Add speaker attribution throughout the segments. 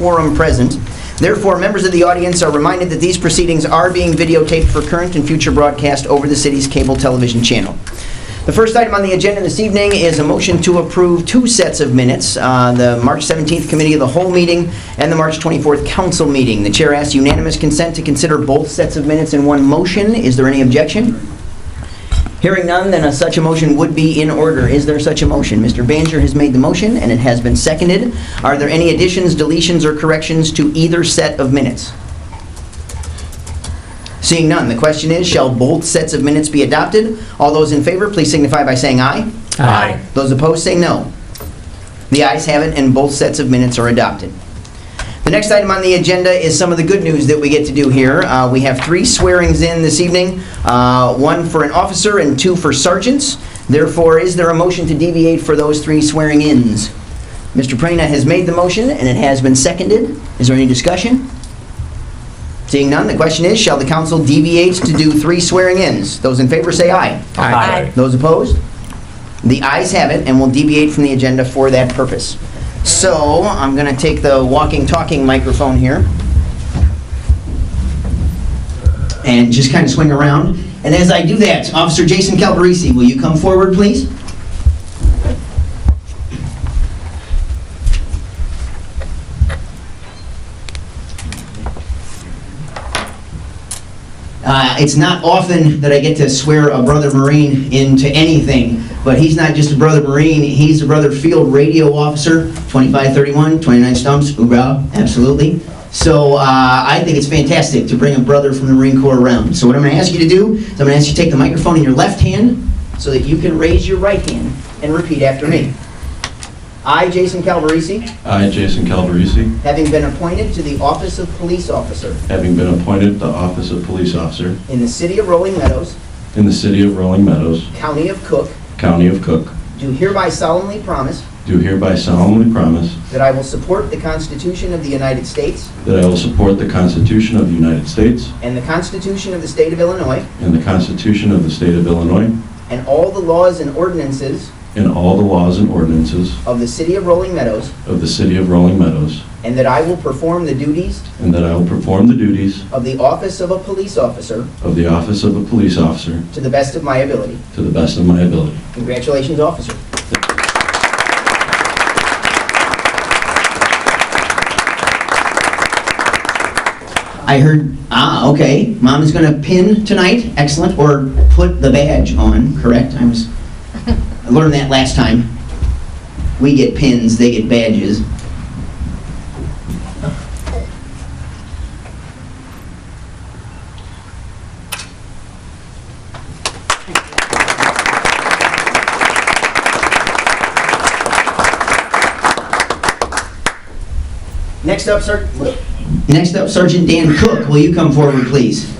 Speaker 1: quorum present. Therefore, members of the audience are reminded that these proceedings are being videotaped for current and future broadcast over the city's cable television channel. The first item on the agenda this evening is a motion to approve two sets of minutes, uh, the March 17th Committee of the Whole meeting and the March 24th Council meeting. The chair asks unanimous consent to consider both sets of minutes in one motion. Is there any objection? Hearing none, then a such a motion would be in order. Is there such a motion? Mr. Banjer has made the motion, and it has been seconded. Are there any additions, deletions, or corrections to either set of minutes? Seeing none, the question is, shall both sets of minutes be adopted? All those in favor, please signify by saying aye.
Speaker 2: Aye.
Speaker 1: Those opposed, say no. The ayes have it, and both sets of minutes are adopted. The next item on the agenda is some of the good news that we get to do here. Uh, We have three swearings in this evening, uh, one for an officer and two for sergeants. Therefore, is there a motion to deviate for those three swearing-ins? Mr. Prana has made the motion, and it has been seconded. Is there any discussion? Seeing none, the question is, shall the council deviate to do three swearing-ins? Those in favor say aye.
Speaker 2: Aye.
Speaker 1: Those opposed? The ayes have it, and we will deviate from the agenda for that purpose. So, I'm going to take the walking, talking microphone here, and just kind of swing around. And as I do that, Officer Jason Calparisi, will you come forward, please? Uh, it's not often that I get to swear a brother Marine into anything, but he's not just a brother Marine, he's a brother field radio officer, 2531, 29 stumps, hoorah, absolutely. So uh, I think it's fantastic to bring a brother from the Marine Corps around. So what I'm going to ask you to do is I'm going to ask you to take the microphone in your left hand so that you can raise your right hand and repeat after me. I, Jason Calvarisi,
Speaker 3: I, Jason Calderisi,
Speaker 1: having been appointed to the office of police officer
Speaker 3: having been appointed the office of police officer
Speaker 1: in the city of Rolling Meadows,
Speaker 3: in the city of Rolling Meadows,
Speaker 1: county of Cook,
Speaker 3: county of Cook,
Speaker 1: Do hereby solemnly promise
Speaker 3: do hereby solemnly promise
Speaker 1: that I will support the Constitution of the United States
Speaker 3: that I will support the Constitution of the United States
Speaker 1: and the Constitution of the State of Illinois
Speaker 3: and the Constitution of the state of Illinois
Speaker 1: and all the laws and ordinances
Speaker 3: and all the laws and ordinances
Speaker 1: of the City of Rolling Meadows,
Speaker 3: of the city of Rolling Meadows,
Speaker 1: and that I will perform the duties
Speaker 3: and that I will perform the duties
Speaker 1: of the office of a police officer
Speaker 3: of the office of a police officer
Speaker 1: to the best of my ability.
Speaker 3: to the best of my ability.
Speaker 1: Congratulations, officer. I heard, ah, okay, mom is gonna pin tonight, excellent, or put the badge on, correct? I was, I learned that last time. We get pins, they get badges. Next up, Sir, next up Sergeant Dan Cook, will you come forward, please?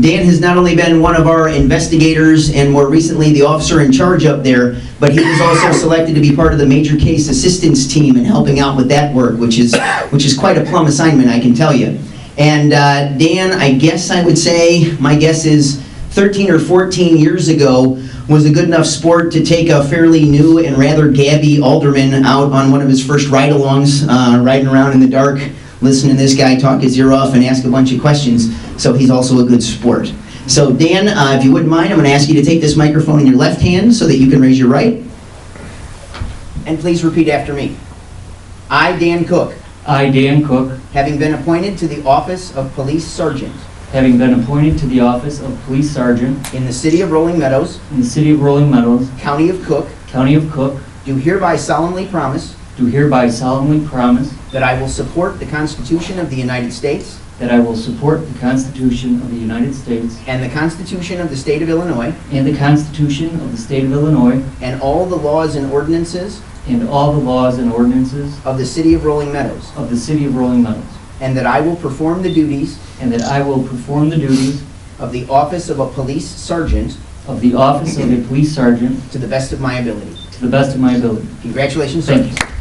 Speaker 1: Dan has not only been one of our investigators and more recently the officer in charge up there, but he was also selected to be part of the major case assistance team and helping out with that work, which is, which is quite a plum assignment, I can tell you. And uh, Dan, I guess I would say, my guess is 13 or 14 years ago, was a good enough sport to take a fairly new and rather gabby alderman out on one of his first ride-alongs, uh, riding around in the dark, listening to this guy talk his ear off and ask a bunch of questions. So he's also a good sport. So Dan, uh, if you wouldn't mind, I'm going to ask you to take this microphone in your left hand so that you can raise your right. And please repeat after me. I, Dan Cook,
Speaker 4: I, Dan Cook,
Speaker 1: having been appointed to the office of police sergeant
Speaker 4: having been appointed to the office of Police Sergeant
Speaker 1: in the city of Rolling Meadows,
Speaker 4: in the City of Rolling Meadows,
Speaker 1: county of Cook,
Speaker 4: County of Cook,
Speaker 1: do hereby solemnly promise
Speaker 4: do hereby solemnly promise
Speaker 1: That I will support the Constitution of the United States
Speaker 4: that I will support the Constitution of the United States
Speaker 1: and the Constitution of the State of Illinois
Speaker 4: and the Constitution of the State of Illinois
Speaker 1: and all the laws and ordinances
Speaker 4: and all the laws and ordinances
Speaker 1: of the City of Rolling Meadows,
Speaker 4: of the City of Rolling Meadows,
Speaker 1: and that I will perform the duties
Speaker 4: and that I will perform the duties
Speaker 1: of the office of a police sergeant
Speaker 4: of the office of a Police Sergeant
Speaker 1: to the best of my ability.
Speaker 4: to the best of my ability.
Speaker 1: Congratulations,
Speaker 4: Thank
Speaker 1: sir.
Speaker 4: you.